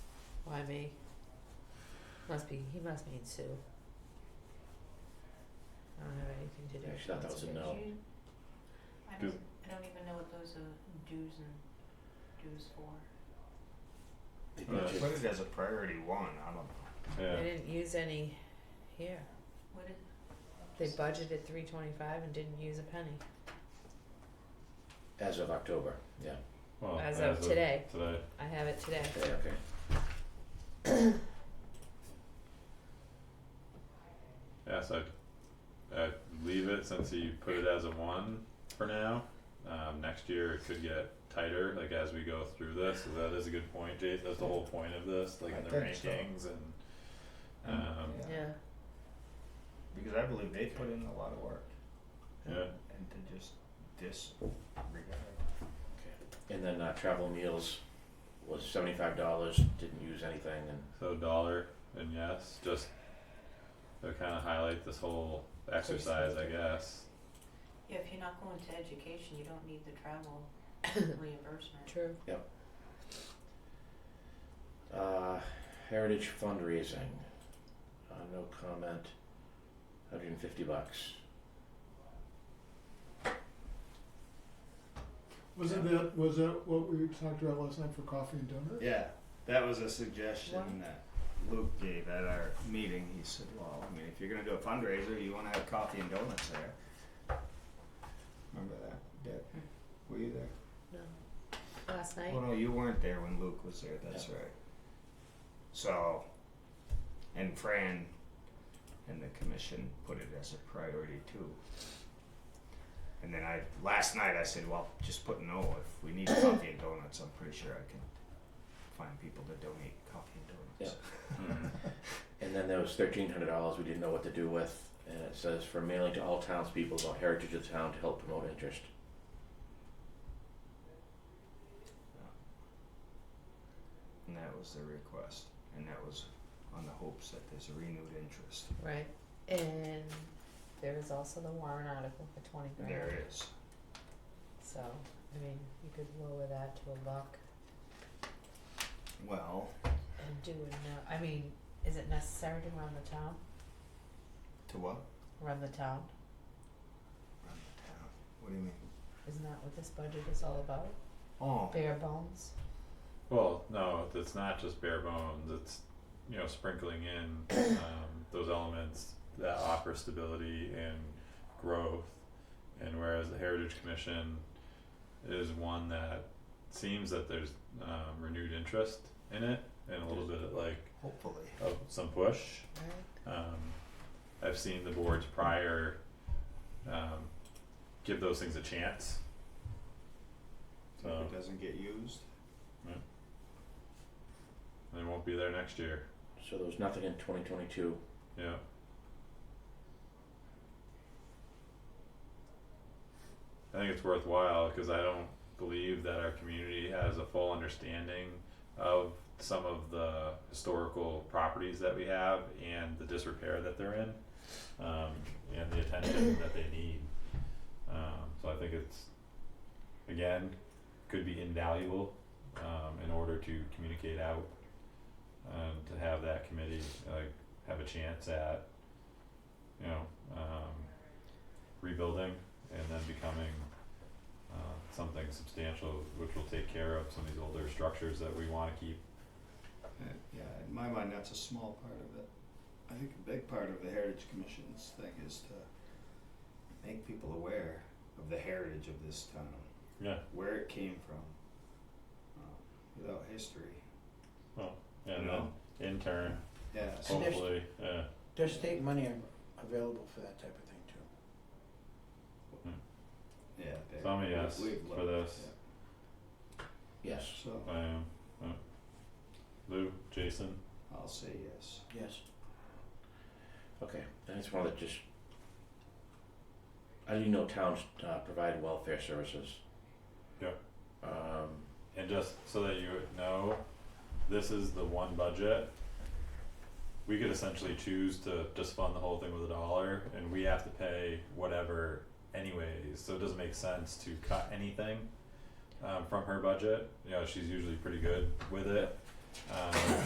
by me. Must be, he must mean Sue. I don't have anything to do I with actually thought that was a conservation. no. I Do- don't, I don't even know what those are dues and dues for. They Uh, did I you- put it as a priority one, I don't know. They Yeah, didn't use any here. What is, They budgeted three twenty-five and didn't use a penny As of October, yeah, well, as of today. Today, I have it today. yeah, okay. yeah, so I, I leave it since you put it as a one for now. Um, next year it could get tighter, like as we go through this, so that is a good point, Jason, that's the whole point of this, like I in the think so. Mm, rankings and, um, Yeah, Because I believe they put in a lot of work. yeah, And to just disregard. And then uh, travel meals was seventy-five dollars, didn't use anything, and so dollar and yes, just to kinda highlight this whole exercise, I guess. yeah, if you're not going to education, you don't need the travel reimbursement. true. uh, heritage fundraising, uh, no comment, hundred and fifty bucks. Wasn't that, was that what we talked about last night for coffee and donuts? Yeah, that was a suggestion What? that Luke gave at our meeting. He said, well, I mean, if you're gonna do a fundraiser, you wanna have coffee and donuts there. Remember that, Deb? Were you there? No. Last night, Well, no, you weren't there when Luke was there, that's right. So, and Fran and the commission put it as a priority too. And then I, last night I said, well, just put no, if we need coffee and donuts, I'm pretty sure I can find people to donate coffee and donuts. Hmm. And then there was thirteen hundred dollars we didn't know what to do with, and it says for mailing to all townspeople about heritage of the town to help promote interest. And that was their request, and that was on the hopes that there's a renewed interest. right, and there was also the warrant article for twenty grand, There is. so, I mean, you could lower that to a buck Well, and do it now, I mean, is it necessary to run the town, to what? run the town? Run the town. What do you mean? Isn't that what this budget is all about? Oh, Bare bones? Well, no, it's not just bare bones. It's you know sprinkling in um, those elements that offer stability and growth. And whereas the Heritage Commission is one that seems that there's um, renewed interest in it and a little bit of like hopefully. of some push. Right. Um, I've seen the boards prior um, give those things a chance. So So- if it doesn't get used. and They won't be there next year. So there was nothing in twenty twenty-two. Yeah. I think it's worthwhile because I don't believe that our community has a full understanding of some of the historical properties that we have and the disrepair that they're in, um, and the attention that they need. Um, so I think it's, again, could be invaluable, um, in order to communicate out, um, to have that committee, like, have a chance at, you know, um, rebuilding and then becoming, uh, something substantial, which will take care of some of these older structures that we wanna keep. Yeah, in my mind, that's a small part of it. I think a big part of the Heritage Commission's thing is to make people aware of the heritage of this town, Yeah, where it came from. Um, Without history, you and know? then in turn, Yeah, so And there's- hopefully, yeah, There's state money av- available for that type of thing too. Yeah, so I'm a yes we, we've for learned, this, Yes. yeah. So I am, yeah. uh, Lou, Jason, I'll say yes. Yes. Okay, I just wanted to just. I didn't know towns uh, provide welfare services. Yeah. Um, and just so that you know, this is the one budget. We could essentially choose to just fund the whole thing with a dollar and we have to pay whatever anyways, so it doesn't make sense to cut anything um from her budget. You know, she's usually pretty good with it. Um